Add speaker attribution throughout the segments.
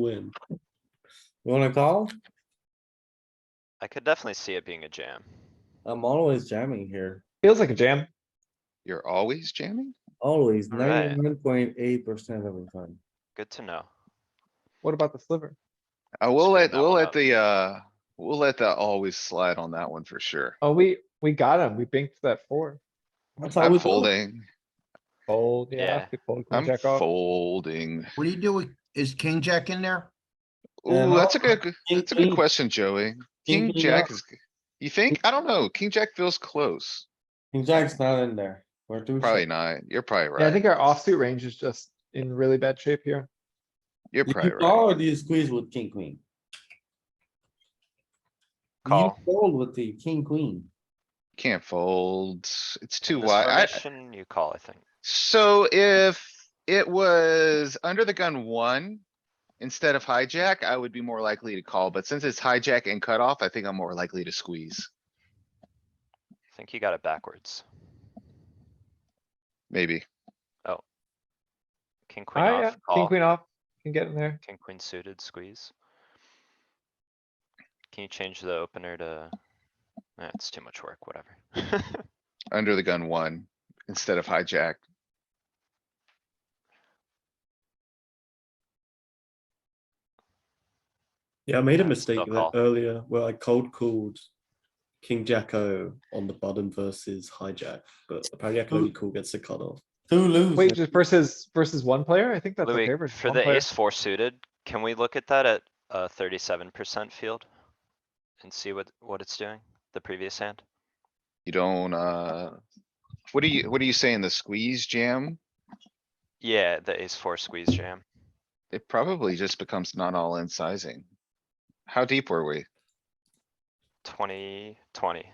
Speaker 1: win. You wanna call?
Speaker 2: I could definitely see it being a jam.
Speaker 1: I'm always jamming here,
Speaker 3: Feels like a jam.
Speaker 4: You're always jamming?
Speaker 1: always
Speaker 2: Alright.
Speaker 1: ninety-one point eight percent of the time.
Speaker 2: Good to know.
Speaker 3: What about the sliver?
Speaker 4: Uh, we'll let,
Speaker 2: that
Speaker 4: we'll
Speaker 2: one
Speaker 4: let
Speaker 2: up.
Speaker 4: the, uh, we'll let that always slide on that one for sure.
Speaker 3: Oh, we, we got him. We binked that four.
Speaker 1: That's how
Speaker 4: I'm
Speaker 1: we do it.
Speaker 4: folding,
Speaker 3: Fold, yeah.
Speaker 2: Yeah.
Speaker 3: we fold queen
Speaker 4: I'm
Speaker 3: jack off.
Speaker 4: folding.
Speaker 5: What do you do? with- Is king jack in there?
Speaker 4: Ooh,
Speaker 1: no,
Speaker 4: that's a good,
Speaker 1: King,
Speaker 4: that's a good
Speaker 1: queen,
Speaker 4: question, Joey.
Speaker 1: King,
Speaker 4: King
Speaker 3: uh,
Speaker 1: queen
Speaker 4: jack
Speaker 1: off.
Speaker 4: is, you think? I don't know. King jack feels close.
Speaker 1: King jack's not in there. We're too.
Speaker 4: Probably
Speaker 1: short.
Speaker 4: not. You're probably
Speaker 3: Yeah, I
Speaker 4: right.
Speaker 3: think our offsuit range is just in really bad shape here.
Speaker 4: You're
Speaker 1: Do you
Speaker 4: probably right.
Speaker 1: call or do you squeeze with king, queen? You
Speaker 2: Call.
Speaker 1: fold with the king, queen.
Speaker 4: Can't fold. It's too
Speaker 2: This
Speaker 4: wide. I-
Speaker 2: formation, You call, I think.
Speaker 4: So if it was under the gun one, instead of hijack, I would be more likely to call, but since it's hijack and cutoff, I think I'm more likely to squeeze.
Speaker 2: I think you got it backwards.
Speaker 4: Maybe.
Speaker 2: King, queen
Speaker 3: Ah, yeah,
Speaker 2: off,
Speaker 3: king,
Speaker 2: call.
Speaker 3: queen off, can get in there.
Speaker 2: King, queen suited, squeeze. Can you change the opener to? That's too much work, whatever.
Speaker 4: Under the gun one, instead of hijack.
Speaker 6: Yeah, I made a
Speaker 2: Yeah, it's still
Speaker 6: mistake
Speaker 2: a
Speaker 6: there
Speaker 2: call.
Speaker 6: earlier where I cold called King Jack O on the button versus hijack, but apparently I can only call gets the cutoff.
Speaker 1: Two lose.
Speaker 3: Wait, just versus, versus one player? I think that's okay
Speaker 2: Louis,
Speaker 3: versus
Speaker 2: for
Speaker 3: one
Speaker 2: the
Speaker 3: player.
Speaker 2: ace four suited, can we look at that at uh thirty-seven percent field? And see what, what it's doing, the previous hand?
Speaker 4: You don't, uh, what are you, what are you saying? The squeeze jam?
Speaker 2: Yeah, the ace four squeeze jam.
Speaker 4: It probably just becomes not all in sizing. How deep were we?
Speaker 2: Twenty, twenty.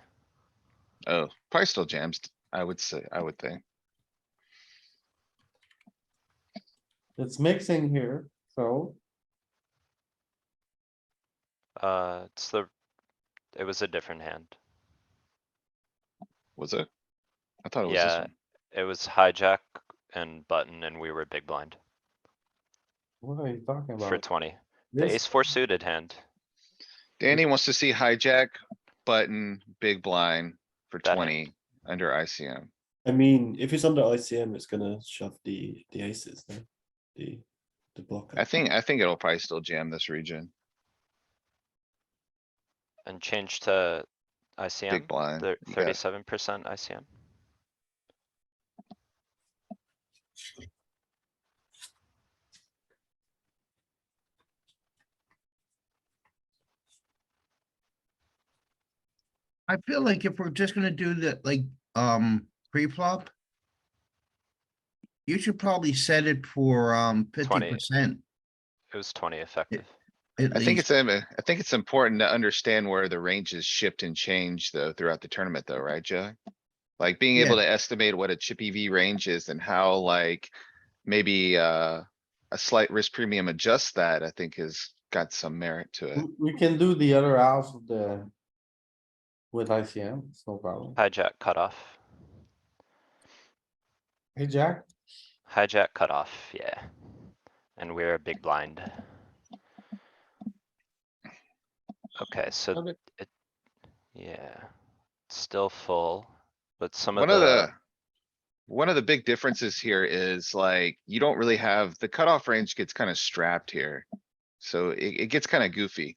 Speaker 4: Oh, probably still jams, I would say, I would think.
Speaker 1: It's mixing here, so
Speaker 2: Uh, it's the, it was a different hand.
Speaker 4: Was it? I thought it was this
Speaker 2: Yeah.
Speaker 4: one.
Speaker 2: It was hijack and button and we were big blind
Speaker 1: what are you talking
Speaker 2: for
Speaker 1: about?
Speaker 2: twenty. The ace
Speaker 1: This,
Speaker 2: four suited hand.
Speaker 4: Danny wants to see hijack, button, big blind for
Speaker 2: That hand.
Speaker 4: twenty under ICM.
Speaker 6: I mean, if it's under ICM, it's gonna shove the, the aces, no? The, the blocker.
Speaker 4: I think, I think it'll probably still jam this region,
Speaker 2: And change to
Speaker 4: big
Speaker 2: ICM,
Speaker 4: blind. You got it.
Speaker 2: thirty-seven percent ICM.
Speaker 5: I feel like if we're just gonna do the, like, um, pre-flop. You should probably set it for, um, fifty percent.
Speaker 2: It was twenty effective.
Speaker 4: I think it's, im- I think it's important to understand where the ranges shift and change though throughout the tournament though, right, Jack? Like being able to estimate what a chip EV range is and how like maybe, uh, a slight risk premium adjusts that, I think has got some merit to it.
Speaker 1: we- we can do the other half of the. With ICM, it's no problem.
Speaker 2: Hijack cutoff,
Speaker 1: Hey, Jack,
Speaker 2: hijack cutoff, yeah. And we're a big blind. Okay, so
Speaker 1: Love it.
Speaker 2: it, yeah, still full, but some of
Speaker 4: One of
Speaker 2: the,
Speaker 4: the, one of the big differences here is like, you don't really have, the cutoff range gets kind of strapped here. So it, it gets kind of goofy.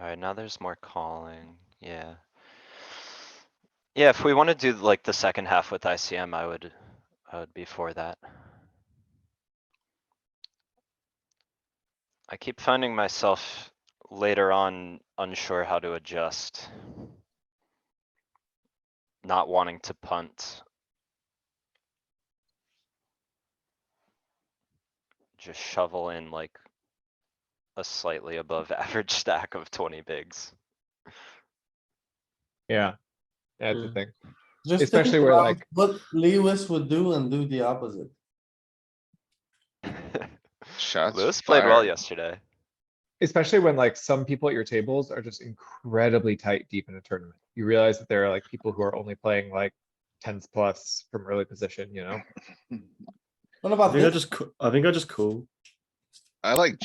Speaker 2: alright, now there's more calling, yeah. Yeah, if we wanna do like the second half with ICM, I would, I would be for that. I keep finding myself later on unsure how to adjust. Not wanting to punt. Just shovel in like a slightly above average stack of twenty bigs.
Speaker 3: Yeah. Yeah, it's a
Speaker 1: Mm.
Speaker 3: thing.
Speaker 1: just. think
Speaker 3: Especially where,
Speaker 1: about
Speaker 3: like-
Speaker 1: What Lewis would do and do the opposite.
Speaker 4: Shots
Speaker 2: Lewis played well
Speaker 4: fired.
Speaker 2: yesterday.
Speaker 3: Especially when like some people at your tables are just incredibly tight deep in a tournament. You realize that there are like people who are only playing like tens plus from early position, you know?
Speaker 1: What
Speaker 6: I
Speaker 1: about
Speaker 6: think I
Speaker 1: this?
Speaker 6: just, ca- I think I just call.
Speaker 4: I like